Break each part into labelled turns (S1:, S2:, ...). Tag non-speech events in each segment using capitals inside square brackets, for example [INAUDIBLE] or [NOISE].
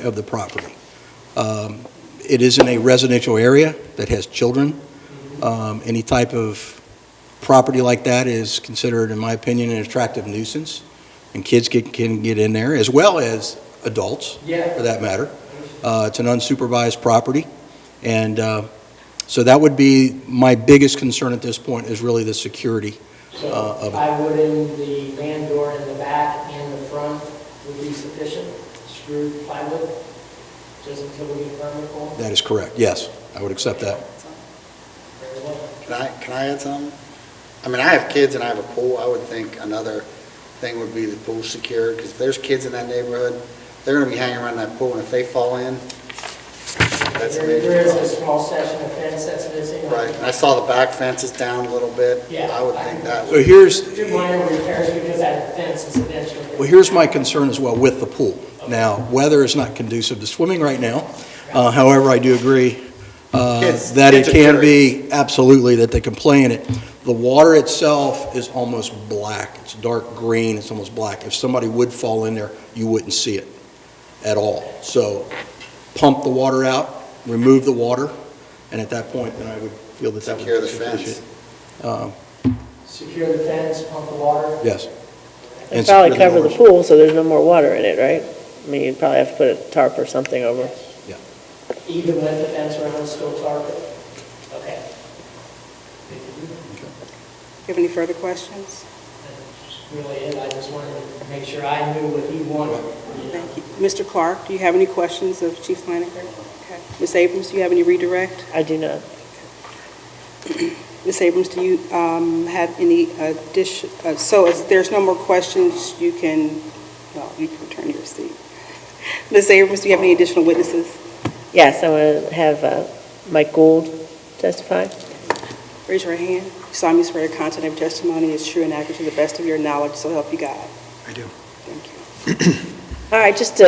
S1: of the property. Um, It is in a residential area that has children. Um, Any type of property like that is considered, in my opinion, an attractive nuisance, and kids can- can get in there, as well as adults, for
S2: Yeah,
S1: that matter. Uh, It's an unsupervised property, and uh, so that would be my biggest concern at this point, is really the security. uh,
S2: so
S1: of-
S2: I would in the man door in the back and the front would be sufficient, screwed plywood, just until we get a permit for it.
S1: That is correct, yes, I would accept that.
S2: Very well.
S3: Can I, can I add something? I mean, I have kids and I have a pool, I would think another thing would be the pool secure, because if there's kids in that neighborhood, they're gonna be hanging around that pool, and if they fall in, that's a
S2: There there
S3: major
S2: is a
S3: problem.
S2: small section of fence that's missing.
S3: Right, and I saw the back fences down a little bit.
S2: Yeah.
S3: I would think that
S1: So
S3: would,
S1: here's,
S2: Do minor repairs because that fence is eventually.
S1: Well, here's my concern as well with the pool. Now, weather is not conducive to swimming right now. Uh, However, I do agree uh,
S3: Kids-
S1: that it
S3: kids are
S1: can be, absolutely, that they can play in it. The water itself is almost black. It's dark green, it's almost black. If somebody would fall in there, you wouldn't see it at all. So pump the water out, remove the water, and at that point, then I would feel that that would
S3: Secure
S1: be
S3: the fence.
S1: sufficient. Uh,
S2: Secure the fence, pump the water.
S1: Yes.
S4: It'd
S1: And
S4: probably
S1: secure
S4: cover the
S1: doors.
S4: pool, so there's no more water in it, right? I mean, you'd probably have to put a tarp or something over.
S2: Even with the fence around, still target. Okay.
S5: you have any further questions?
S2: That's Really, it. I just wanted to make sure I knew what he wanted. you know.
S5: Thank you. Mr. Clark, do you have any questions of Chief Flanagan? Okay. Ms. Abrams, do you have any redirect?
S4: I do not.
S5: Ms. Abrams, do you um, have any addition, uh, so if there's no more questions, you can, well, you can return to your seat. [LAUGHS] Ms. Abrams, do you have any additional witnesses?
S4: Yes, I want to have uh, Mike Gould testify.
S5: Raise your hand. You solemnly swear your content of your testimony is true and accurate to the best of your knowledge, so help you God.
S3: I do.
S5: Thank you.
S4: All right, just to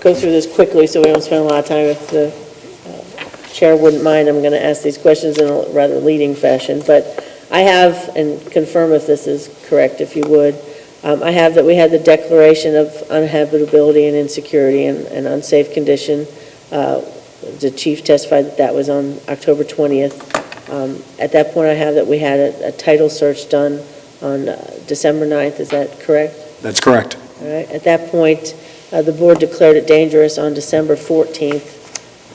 S4: go through this quickly so we don't spend a lot of time, if the uh, chair wouldn't mind, I'm going to ask these questions in a rather leading fashion, but I have, and confirm if this is correct, if you would, um, I have that we had the declaration of unhabitability and insecurity and and unsafe condition. Uh, The chief testified that that was on October 20th. Um, At that point, I have that we had a a title search done on uh, December 9th, is that correct?
S6: That's correct.
S4: All right, at that point, uh, the board declared it dangerous on December 14th.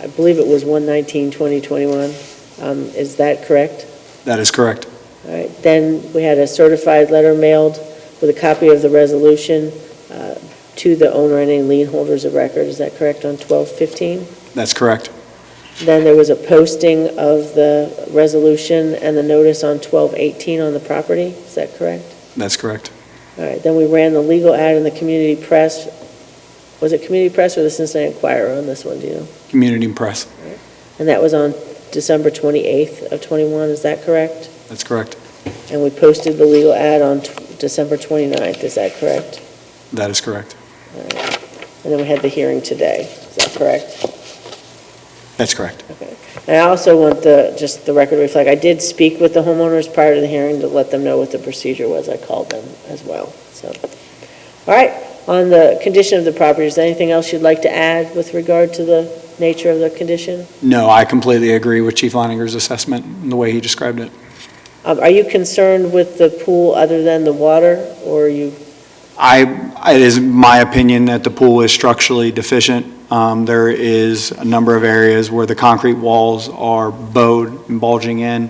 S4: I believe it was 119, 2021 Um, Is that correct?
S6: That is correct.
S4: All right, then we had a certified letter mailed with a copy of the resolution uh, to the owner and any lien holders of record. Is that correct, on 12/15?
S6: That's correct.
S4: Then there was a posting of the resolution and the notice on 12/18 on the property. Is that correct?
S6: That's correct.
S4: All right, then we ran the legal ad in the community press. Was it community press or the Cincinnati Enquirer on this one, do you know?
S6: Community Press.
S4: And that was on December 28th of '21, is that correct?
S6: That's correct.
S4: And we posted the legal ad on tw- December 29th, is that correct?
S6: That is correct.
S4: And then we had the hearing today, is that correct?
S6: That's correct.
S4: And I also want the, just the record to reflect, I did speak with the homeowners prior to the hearing to let them know what the procedure was. I called them as well, so. All right, on the condition of the property, is there anything else you'd like to add with regard to the nature of the condition?
S6: No, I completely agree with Chief Leininger's assessment and the way he described it.
S4: Um, Are you concerned with the pool other than the water, or are you,
S6: I, it is my opinion that the pool is structurally deficient. Um, There is a number of areas where the concrete walls are bowed and bulging in.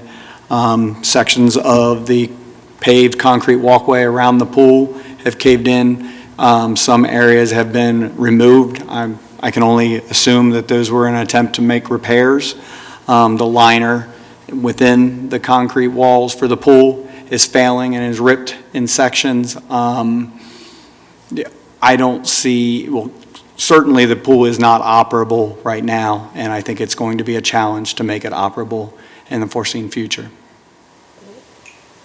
S6: Um, Sections of the paved concrete walkway around the pool have caved in. Um, Some areas have been removed. I'm- I can only assume that those were in an attempt to make repairs. Um, The liner within the concrete walls for the pool is failing and is ripped in sections. Um, I don't see, well, certainly the pool is not operable right now, and I think it's going to be a challenge to make it operable in the foreseen future.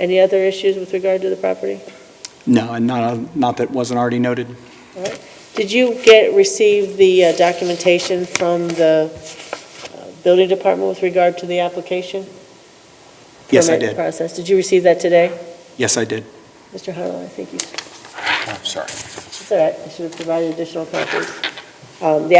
S4: any other issues with regard to the property?
S6: No, and not, not that wasn't already noted.
S4: Did you get, receive the uh, documentation from the uh, building department with regard to the application?
S6: Yes, I
S4: Permit
S6: did.
S4: Process, did you receive that today?
S6: Yes, I did.
S4: Mr. Huddle, I think you,
S3: I'm sorry.
S4: it's all right, I should have provided additional copies. Um, The